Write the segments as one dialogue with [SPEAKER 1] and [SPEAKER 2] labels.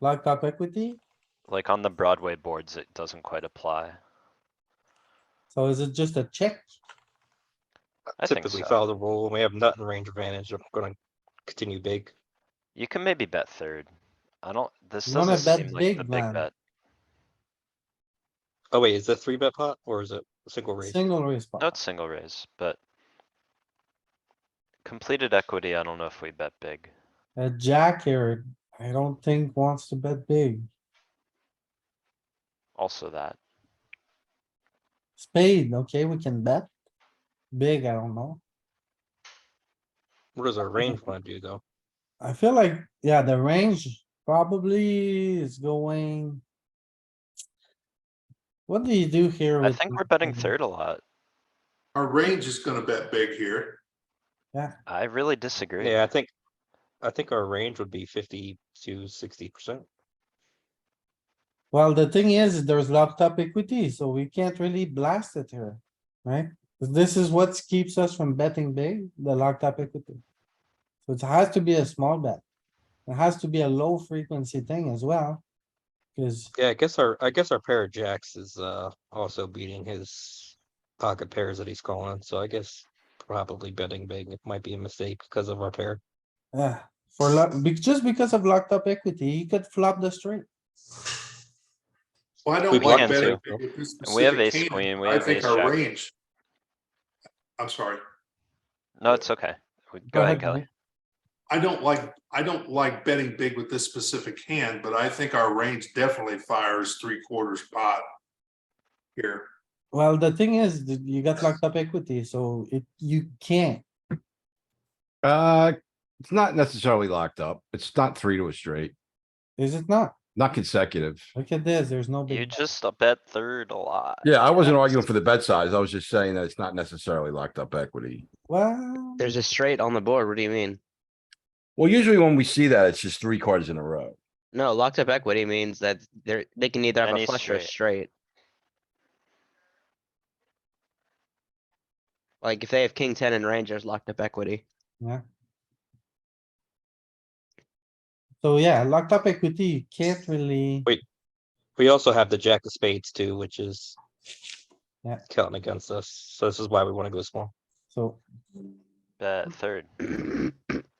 [SPEAKER 1] Locked up equity?
[SPEAKER 2] Like on the Broadway boards, it doesn't quite apply.
[SPEAKER 1] So is it just a check?
[SPEAKER 2] I think
[SPEAKER 3] Uh, Typically
[SPEAKER 2] so.
[SPEAKER 3] follow the rule. When we have nut and range advantage, I'm gonna continue big.
[SPEAKER 2] You can maybe bet third. I don't, this
[SPEAKER 1] You wanna
[SPEAKER 2] doesn't
[SPEAKER 1] bet
[SPEAKER 2] seem like
[SPEAKER 1] big,
[SPEAKER 2] the
[SPEAKER 1] man.
[SPEAKER 2] big bet.
[SPEAKER 3] Oh wait, is that three bet pot or is it a single raise?
[SPEAKER 1] Single raise
[SPEAKER 2] No,
[SPEAKER 1] pot.
[SPEAKER 2] it's single raise, but. Completed equity, I don't know if we bet big.
[SPEAKER 1] A jack here, I don't think wants to bet big.
[SPEAKER 2] Also that.
[SPEAKER 1] Spade, okay, we can bet. Big, I don't know.
[SPEAKER 3] What does our range wanna do though?
[SPEAKER 1] I feel like, yeah, the range probably is going. What do you do here?
[SPEAKER 2] I
[SPEAKER 1] with
[SPEAKER 2] think
[SPEAKER 1] the-
[SPEAKER 2] we're betting third a lot.
[SPEAKER 4] Our range is gonna bet big here.
[SPEAKER 2] I really disagree.
[SPEAKER 3] Yeah, I think, I think our range would be fifty to sixty percent.
[SPEAKER 1] Well, the thing is, there's locked up equity, so we can't really blast it here, right? This is what keeps us from betting big, the locked up equity. So it has to be a small bet. It has to be a low frequency thing as well. Cause
[SPEAKER 3] Yeah, I guess our, I guess our pair of jacks is, uh, also beating his pocket pairs that he's calling, so I guess probably betting big might be a mistake because of our pair.
[SPEAKER 1] Yeah, uh, for luck, just because of locked up equity, he could flop the straight.
[SPEAKER 4] Well, I
[SPEAKER 3] We
[SPEAKER 4] don't like
[SPEAKER 2] can
[SPEAKER 4] betting.
[SPEAKER 3] too.
[SPEAKER 4] big with this
[SPEAKER 2] And we have
[SPEAKER 4] specific
[SPEAKER 2] ace
[SPEAKER 4] hand.
[SPEAKER 2] queen, we
[SPEAKER 4] I
[SPEAKER 2] have
[SPEAKER 4] think
[SPEAKER 2] ace
[SPEAKER 4] our
[SPEAKER 2] jack.
[SPEAKER 4] range. I'm sorry.
[SPEAKER 2] No, it's okay. We- Go ahead, Kelly.
[SPEAKER 4] I don't like, I don't like betting big with this specific hand, but I think our range definitely fires three quarters pot. Here,
[SPEAKER 1] Well, the thing is, that you got locked up equity, so it, you can't.
[SPEAKER 5] Uh, it's not necessarily locked up. It's not three to a straight,
[SPEAKER 1] Is it not?
[SPEAKER 5] not consecutive.
[SPEAKER 1] Look at this, there's no
[SPEAKER 2] You
[SPEAKER 1] big,
[SPEAKER 2] just uh, bet third a lot.
[SPEAKER 5] Yeah, I wasn't arguing for the bet size. I was just saying that it's not necessarily locked up equity.
[SPEAKER 1] well,
[SPEAKER 6] There's a straight on the board. What do you mean?
[SPEAKER 5] Well, usually when we see that, it's just three cards in a row.
[SPEAKER 6] No, locked up equity means that they're, they can either have
[SPEAKER 2] Any
[SPEAKER 6] a flush or a
[SPEAKER 2] straight.
[SPEAKER 6] straight. Like if they have king ten and rangers locked up equity.
[SPEAKER 1] so yeah, locked up equity, you can't really,
[SPEAKER 3] Wait. We also have the jack of spades too, which is
[SPEAKER 1] Yeah.
[SPEAKER 3] counting against us, so this is why we wanna go small.
[SPEAKER 1] so,
[SPEAKER 2] Bet third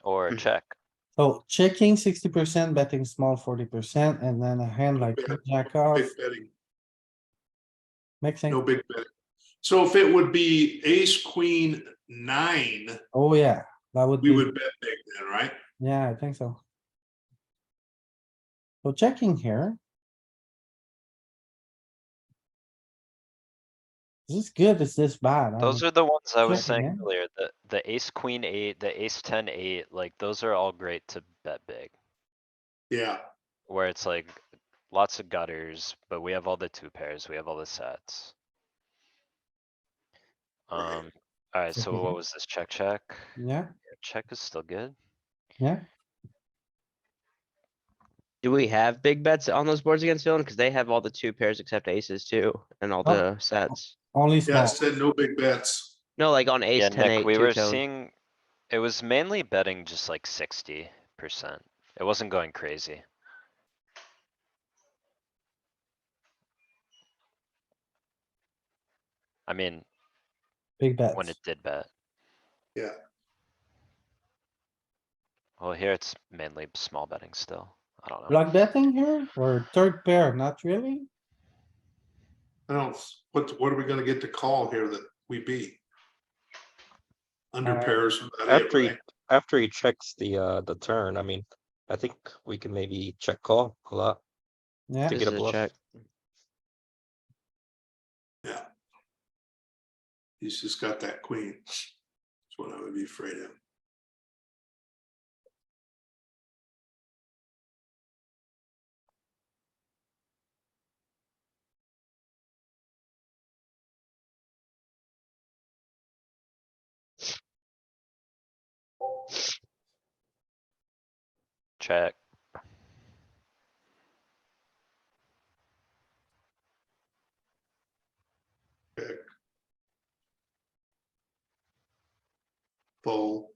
[SPEAKER 2] or
[SPEAKER 3] Mm-hmm.
[SPEAKER 2] check.
[SPEAKER 1] so checking sixty percent, betting small forty percent, and then a hand like
[SPEAKER 4] Yeah.
[SPEAKER 1] jack
[SPEAKER 4] no
[SPEAKER 1] off,
[SPEAKER 4] big betting, no
[SPEAKER 1] mixing,
[SPEAKER 4] big betting. So if it would be ace, queen, nine,
[SPEAKER 1] oh yeah, that would
[SPEAKER 4] we
[SPEAKER 1] be,
[SPEAKER 4] would bet big then, right?
[SPEAKER 1] yeah, I think so. So checking here. Is this good? Is this bad? I
[SPEAKER 2] Those
[SPEAKER 1] don't-
[SPEAKER 2] are the ones I was
[SPEAKER 1] Checking,
[SPEAKER 2] saying
[SPEAKER 1] Um, yeah.
[SPEAKER 2] earlier, the, the ace, queen, eight, the ace, ten, eight, like those are all great to bet big.
[SPEAKER 4] Yeah,
[SPEAKER 2] Where it's like lots of gutters, but we have all the two pairs, we have all the sets.
[SPEAKER 4] Right.
[SPEAKER 2] Um, alright,
[SPEAKER 1] Check
[SPEAKER 2] so
[SPEAKER 1] again.
[SPEAKER 2] what was this? Check, check?
[SPEAKER 1] Yeah,
[SPEAKER 2] Check is still good.
[SPEAKER 1] yeah,
[SPEAKER 6] Do we have big bets on those boards against villain? Cause they have all the two pairs except aces too and all
[SPEAKER 1] Oh.
[SPEAKER 6] the sets.
[SPEAKER 1] only
[SPEAKER 4] yeah, I
[SPEAKER 1] small.
[SPEAKER 4] said no big bets.
[SPEAKER 6] No, like on ace
[SPEAKER 2] Yeah,
[SPEAKER 6] ten
[SPEAKER 2] Nick,
[SPEAKER 6] eight
[SPEAKER 2] we
[SPEAKER 6] two
[SPEAKER 2] were
[SPEAKER 6] tone.
[SPEAKER 2] seeing, it was mainly betting just like sixty percent. It wasn't going crazy. I mean,
[SPEAKER 1] Big bets.
[SPEAKER 2] when it did bet.
[SPEAKER 4] Yeah.
[SPEAKER 2] Well, here it's mainly small betting still. I don't know.
[SPEAKER 1] Block betting here or third pair? Not really.
[SPEAKER 4] I don't, what, what are we gonna get to call here that we beat? Under
[SPEAKER 1] Uh,
[SPEAKER 4] pairs. about it,
[SPEAKER 3] After he,
[SPEAKER 4] right?
[SPEAKER 3] after he checks the, uh, the turn, I mean, I think we can maybe check call a lot.
[SPEAKER 1] Yeah,
[SPEAKER 3] Take
[SPEAKER 6] This
[SPEAKER 3] it a
[SPEAKER 6] is a
[SPEAKER 3] bluff.
[SPEAKER 6] check.
[SPEAKER 4] Yeah. He's just got that queen. That's what I would be afraid of.
[SPEAKER 2] Check.
[SPEAKER 4] Fold.